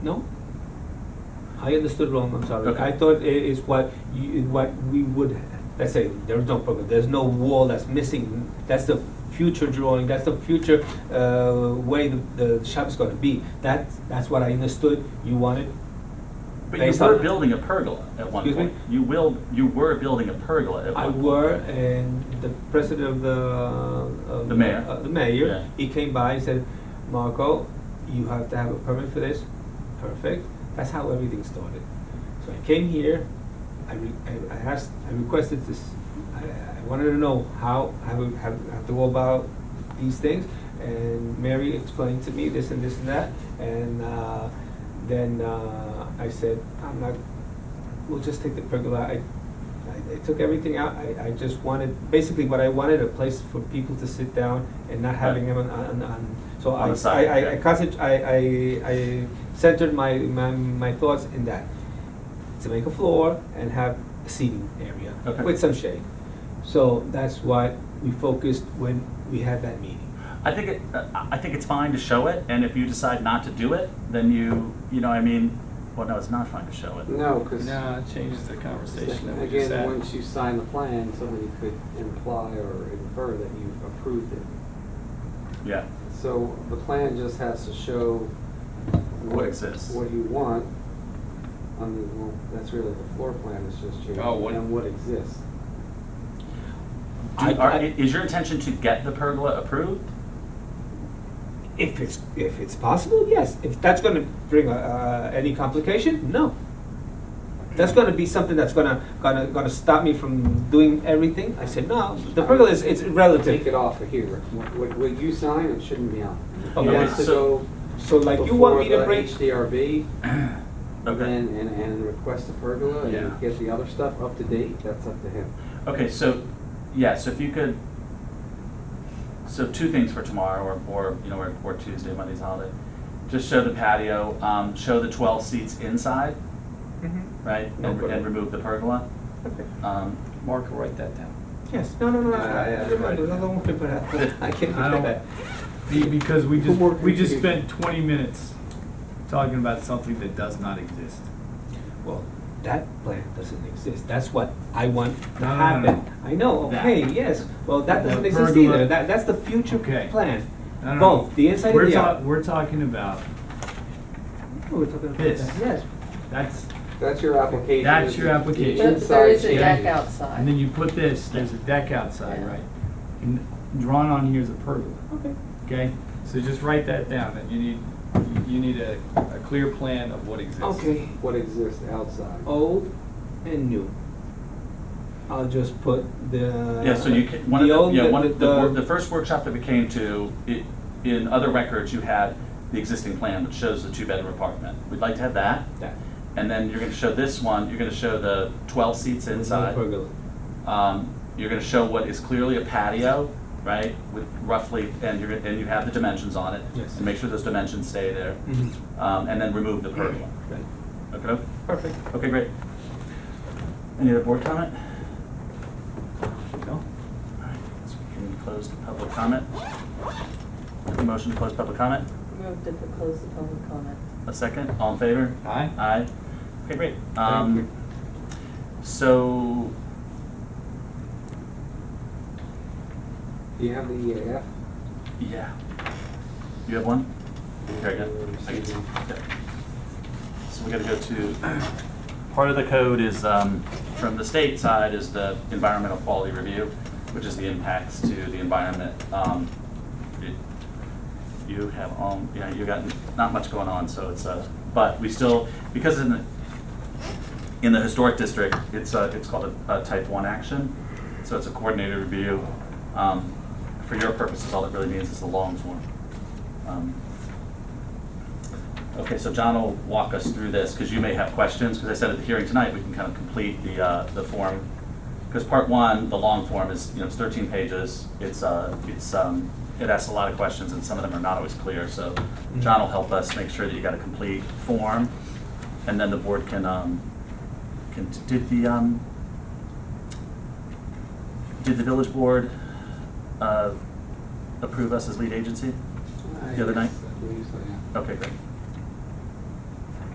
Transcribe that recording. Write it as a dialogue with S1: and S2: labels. S1: No? I understood wrong, I'm sorry.
S2: Okay.
S1: I thought it is what you, what we would, let's say, there's no problem, there's no wall that's missing. That's the future drawing, that's the future, uh, way the, the shop's gonna be. That, that's what I understood you wanted.
S2: But you
S1: Based
S2: were
S1: on-
S2: building a pergola at one
S1: Excuse me?
S2: point. You will, you were building a pergola at
S1: I
S2: one point.
S1: were, and the president of the. of
S2: The mayor.
S1: uh, The mayor,
S2: Yeah.
S1: he came by and said, Marco, you have to have a permit for this. Perfect. That's how everything started. So I came here, I re- I I asked, I requested this, I, I wanted to know how, how we have, have to go about these things. And Mary explained to me this and this and that, and, uh, then, uh, I said, I'm not, we'll just take the pergola. I, I, I took everything out. I, I just wanted, basically what I wanted, a place for people to sit down and not having them on, on, on. So
S2: On
S1: I,
S2: the side,
S1: I, I, I
S2: yeah.
S1: concent- I, I, I centered my, my, my thoughts in that. To make a floor and have a seating area
S2: Okay.
S1: with some shade. So that's what we focused when we had that meeting.
S2: I think it, I I think it's fine to show it, and if you decide not to do it, then you, you know, I mean, well, no, it's not fine to show it.
S3: No, because.
S4: No, it changes the conversation that we just
S3: Again,
S4: had.
S3: once you sign the plan, somebody could imply or infer that you've approved it.
S2: Yeah,
S3: So the plan just has to show.
S2: What exists.
S3: What you want. I mean, well, that's really the floor plan is just changing.
S4: Oh, what-
S3: And what exists.
S2: I,
S1: Do-
S2: are,
S1: I-
S2: is your intention to get the pergola approved?
S1: If it's, if it's possible, yes. If that's gonna bring, uh, any complication, no. That's gonna be something that's gonna, gonna, gonna stop me from doing everything, I said, no, the pergola is, it's
S3: Take it
S1: relative.
S3: off of here. What, what- what you sign, it shouldn't be on.
S1: Okay,
S3: It has to
S2: so-
S3: go
S1: So like you want me to bring,
S3: Before the HDRB,
S2: Okay.
S3: and, and, and request a pergola,
S2: Yeah.
S3: and get the other stuff up to date, that's up to him.
S2: Okay, so, yeah, so if you could, so two things for tomorrow or, or, you know, or, or Tuesday, Monday's holiday. Just show the patio, um, show the twelve seats inside,
S5: Mm-hmm.
S2: right? And,
S1: No pergola.
S2: and remove the pergola.
S1: Okay.
S2: Um,
S4: Mark will write that down.
S1: yes, no, no, no, no,
S4: Yeah,
S1: I,
S4: yeah,
S1: I don't
S4: right.
S1: I don't worry about that, I can't
S5: I
S1: do
S5: don't-
S1: that.
S5: Be- Because we just,
S3: More
S5: we just
S3: confusion.
S5: spent twenty minutes talking about something that does not exist.
S1: Well, that plan doesn't exist, that's what I want to
S5: No, no, no, no.
S1: happen. I know,
S5: That.
S1: okay, yes, well, that
S5: The
S1: doesn't exist
S5: pergola-
S1: either, that, that's the future
S5: Okay.
S1: plan.
S5: No, no, no.
S1: Both, the inside
S5: We're
S1: and the
S5: ta-
S1: out.
S5: We're talking about,
S1: Oh, We're talking about
S5: This.
S1: that. Yes,
S5: that's,
S3: That's your application.
S5: That's
S3: is
S5: your
S3: the
S5: application.
S6: But there
S3: inside
S6: is a deck
S3: changes.
S5: and then
S6: outside.
S5: you put this, there's a deck outside,
S6: Yeah.
S5: right? And drawn on here is a pergola,
S1: okay.
S5: okay? So just write that down, that you need, you need a, a clear plan of what exists.
S1: Okay,
S3: What exists outside.
S2: Oh.
S1: old and new. I'll just put the.
S2: Yeah, so you can, one of
S1: the old,
S2: the, yeah, one,
S1: the-
S2: of the, wor- the
S1: the-
S2: first workshop that we came to, i- in other records, you had the existing plan, which shows the two-bedroom apartment. We'd like to have that,
S1: that.
S2: and then you're gonna show this one, you're gonna show the twelve seats inside.
S1: Pergola. Mm-hmm.
S2: Um, you're gonna show what is clearly a patio, right, with roughly, and you're, and you have the dimensions on it.
S1: Yes.
S2: And make sure those dimensions stay there,
S1: Mhm.
S2: um, and then remove the pergola.
S1: Right.
S2: Okay,
S1: Perfect.
S2: okay, great. Any other board comment?
S5: No?
S2: All right, so we can close the public comment. Motion to close public comment.
S6: Moved to close the public comment.
S2: A second, all in favor?
S5: Aye?
S2: Aye. Okay, great. Um, so,
S3: Do you have the E EAF?
S2: yeah. You have one? Very good.
S3: Or
S2: I can see.
S3: something?
S2: Yeah. So we gotta go to, part of the code is, um, from the state side is the environmental quality review, which is the impacts to the environment. Um, it- you have, um, you know, you got not much going on, so it's, uh, but we still, because in the, in the historic district, it's, uh, it's called a, a type one action. So it's a coordinated review. Um, for your purposes, all it really means is the long form. Um, Okay, so John will walk us through this, because you may have questions, because I said at the hearing tonight, we can kind of complete the, uh, the form. Because part one, the long form is, you know, it's thirteen pages, it's, uh, it's, um, it asks a lot of questions, and some of them are not always clear, so John will help us make sure that you got a complete form, and then the board can, um, can, did the, um, did the village board, uh, approve us as lead agency? The other night?
S3: I believe so, yeah.
S2: Okay, great.